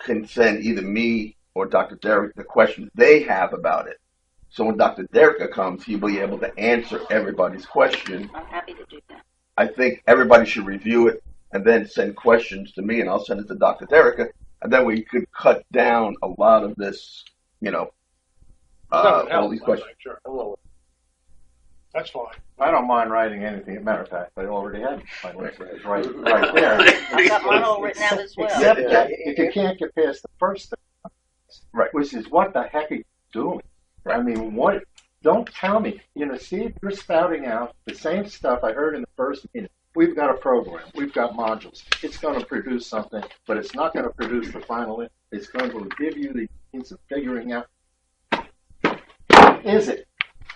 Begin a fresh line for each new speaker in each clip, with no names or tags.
can send either me or Dr. Derek the questions they have about it. So when Dr. Derek comes, he'll be able to answer everybody's question.
I'm happy to do that.
I think everybody should review it and then send questions to me, and I'll send it to Dr. Derek, and then we could cut down a lot of this, you know, uh, all these questions.
Sure, hello. That's fine.
I don't mind writing anything. As a matter of fact, I already had my list. It's right, right there.
I've got mine all written out as well.
Except that if you can't get past the first thing,
Right.
Which is what the heck are you doing? I mean, what? Don't tell me. You know, see, if you're spouting out the same stuff I heard in the first meeting. We've got a program. We've got modules. It's going to produce something, but it's not going to produce the final. in- It's going to give you the means of figuring out. Is it?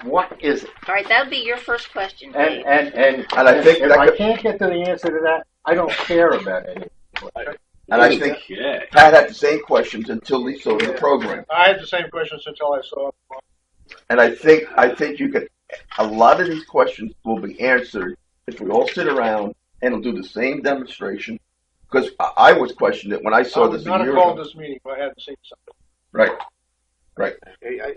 What is it?
All right, that would be your first question,
And
Dave.
and and,
And I think
if
that
I
could-
can't get to the answer to that, I don't care about it.
And I think Pat had the same questions until he saw the program.
I had the same questions until I saw.
And I think I think you could. A lot of these questions will be answered if we all sit around and will do the same demonstration. Because I, I was questioned it when I
I
saw
would
this Oh, a
not have
year
called
ago.
this meeting if I hadn't seen something.
Right.
Hey, I,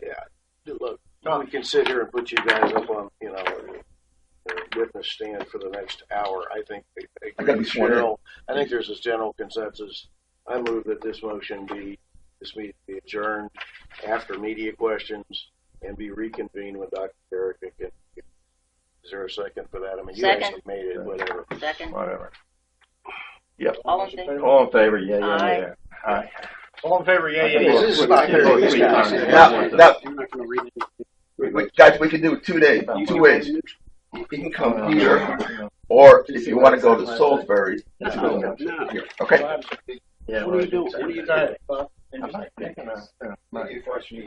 I, look, we can sit here and put you guys up on, you know, the witness stand for the next hour. I think.
I gotta be sworn in.
general- I think there's this general consensus. I move that this motion be, this meeting be adjourned after media questions and be reconvened when Dr. Derrick can. Is there a second for that? I mean, you guys
Second.
have made it, whatever.
Second,
Whatever.
all in favor?
All in favor? Yeah, yeah,
Aye.
yeah. Aye.
All in favor, yeah, yeah,
This
yeah.
is about thirty minutes.
Now, Oh, now
I'm not gonna read it.
we- we- guys, we can do it two days, two ways. You can come here, or if you want to go to Salisbury. it's cool.
No.
Okay.
Yeah,
What are you doing? What are you doing?
I'm not taking a- uh, not-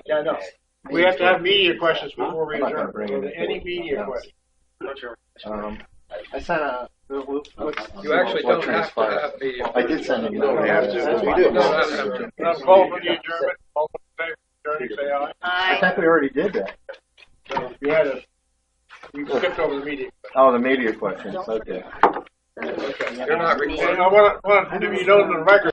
Yeah, I know. We have to have media questions before we adjourn. Any media questions?
Um, I sent a. uh, You
You actually don't have to have media.
I did send an
You
email.
don't have to.
That's
We
fine.
do.
No,
No,
that's-
no, Can I call for the adjournment? All in favor, adjourn, say aye.
I
Aye.
think we already did that.
No, You had a, you skipped over the meeting.
Oh, the media questions, okay.
You're not
And
recording.
I want to, want to, you know, the record